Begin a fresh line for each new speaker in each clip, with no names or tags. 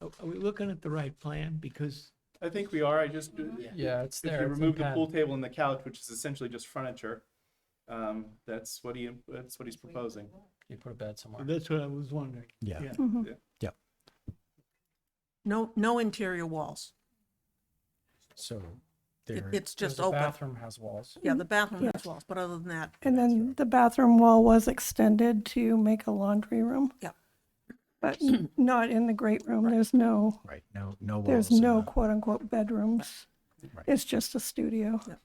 Are are we looking at the right plan? Because,
I think we are, I just, uh,
Yeah, it's
if
there.
you
it's in
remove the
pen.
pool table and the couch, which is essentially just furniture, um, that's what he, that's what he's proposing.
You put a bed somewhere.
that's what I was wondering.
Yeah.
Yeah. yeah.
No, no interior walls.
So
It,
there,
it's just
There's a
open.
Bathroom has walls.
Yeah, the bathroom
Yeah.
has walls, but other than that,
And then the bathroom wall was extended to make a laundry room.
Yep.
But n- not in the great room. There's no,
right, no, no walls.
there's
in
no
the-
quote unquote bedrooms.
Right.
It's just a studio.
Yep.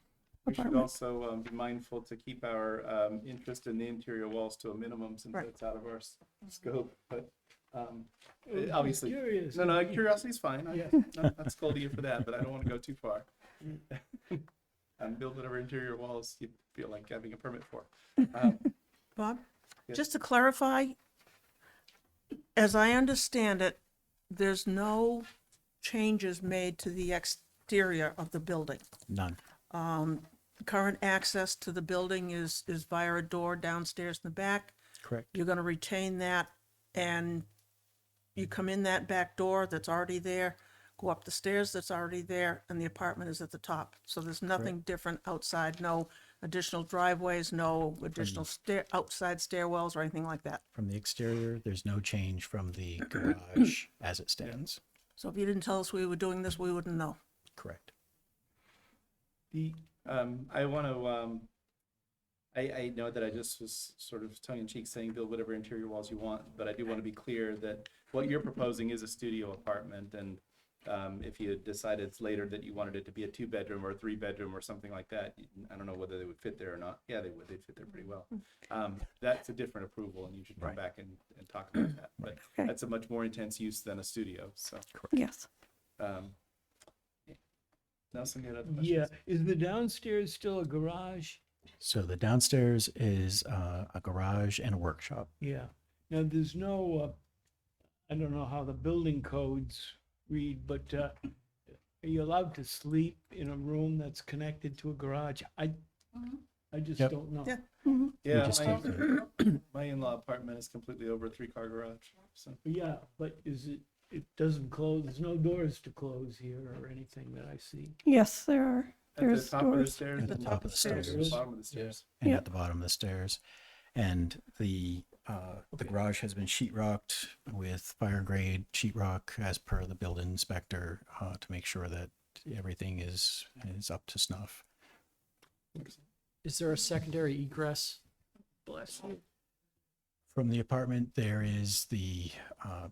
We should
Apartment.
also um, be mindful to keep our um, interest in the interior walls to a minimum since
Right.
that's out of our s- scope, but um, eh, obviously.
Curious.
No, no, curiosity's fine. I-
Yeah.
no, I'd scold you for that, but I don't want to go too far.
Mm.
And build whatever interior walls you feel like having a permit for. Um,
Bob,
Yes.
just to clarify, as I understand it, there's no changes made to the exterior of the building.
None.
Current access to the building is, is via a door downstairs in the back.
Correct.
You're gonna retain that and you come in that back door that's already there, go up the stairs that's already there, and the apartment is at the top. So there's nothing different outside, no additional driveways, no additional stair, outside stairwells or anything like that.
From the exterior, there's no change from the garage as it stands.
So if you didn't tell us we were doing this, we wouldn't know.
Correct.
The, um, I want to, um, I, I know that I just was sort of tongue in cheek saying build whatever interior walls you want, but I do want to be clear that what you're proposing is a studio apartment and, um, if you decided later that you wanted it to be a two bedroom or a three bedroom or something like that, you- I don't know whether they would fit there or not. Yeah, they would. They'd fit there pretty well. Um, that's a different approval and you should come
Right.
back and, and talk about that. But
Okay.
that's a much more intense use than a studio, so,
Yes.
um. Nelson, you had other questions?
Yeah, is the downstairs still a garage?
So the downstairs is uh, a garage and a workshop.
Yeah. Now, there's no, uh, I don't know how the building codes read, but, uh, are you allowed to sleep in a room that's connected to a garage? I, I just
Yep.
don't know.
Yeah.
We
Yeah,
just
my, my in-law apartment is completely over a three-car garage, so.
Yeah, but is it, it doesn't close, there's no doors to close here or anything that I see.
Yes, there are.
At the
There's
top of the
doors.
stairs.
At the top of the
and
stairs.
Bottom of the stairs.
and
Yeah.
at the bottom of the stairs. And the uh, the garage has been sheetrocked with fire grade sheetrock as per the building inspector uh, to make sure that everything is is up to snuff.
Is there a secondary egress?
Bless you.
From the apartment, there is the uh,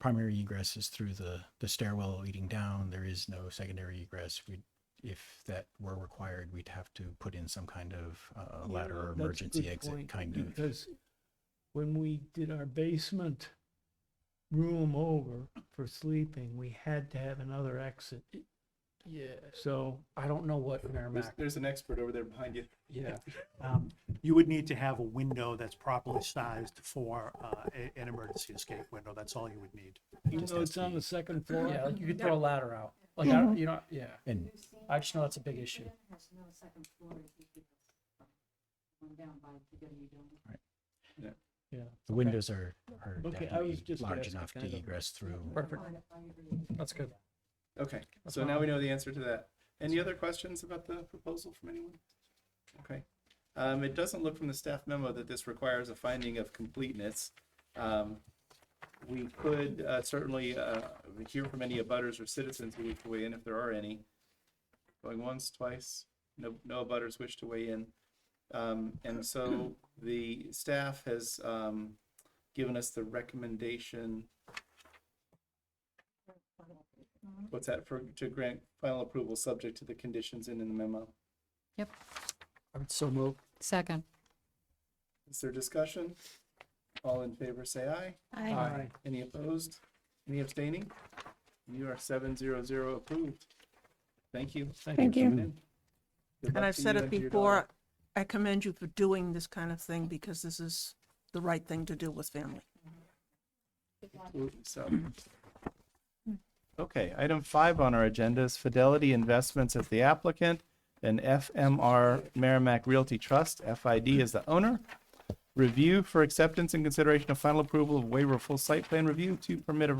primary egress is through the the stairwell leading down. There is no secondary egress. We if that were required, we'd have to put in some kind of uh, ladder or
That's a
emergency
good
exit
point,
kind of.
Because when we did our basement room over for sleeping, we had to have another exit.
Yeah.
So,
I don't know what
There's,
Merrimack,
there's an expert over there behind you.
yeah.
um, you would need to have a window that's properly sized for uh, a- an emergency escape window. That's all you would need.
even
just
though
has
it's
to
on
be-
the second floor.
Yeah, like you could throw a ladder out. Like, I, don't- you know, yeah.
And
I just know that's a big issue.
has no second floor, if you could, um, down by PW Dome.
Yeah.
The windows are, are
Okay, I was
definitely
just
large
asking
enough to
kind of-
egress through.
Perfect. That's good.
Okay,
That's
so
not-
now we know the answer to that. Any other questions about the proposal from anyone? Okay. Um, it doesn't look from the staff memo that this requires a finding of completeness. Um, we could, uh, certainly, uh, hear from any abutters or citizens who wish to weigh in if there are any. Going once, twice, no, no abutters wish to weigh in. Um, and so the staff has, um, given us the recommendation What's that for, to grant final approval subject to the conditions in the memo?
I would so move.
Second.
Is there discussion? All in favor, say aye.
Aye.
Any opposed? Any abstaining? You are seven zero zero approved. Thank you.
Thank
for
you.
coming in. Good luck
And I've
to
said
you
it
and to your
before,
daughter.
I commend you for doing this kind of thing because this is the right thing to do with family.
Absolutely So. Okay, item five on our agenda is Fidelity Investments as the applicant and FMR Merrimack Realty Trust, FID is the owner. Review for acceptance and consideration of final approval of waiver of full site plan review to permit a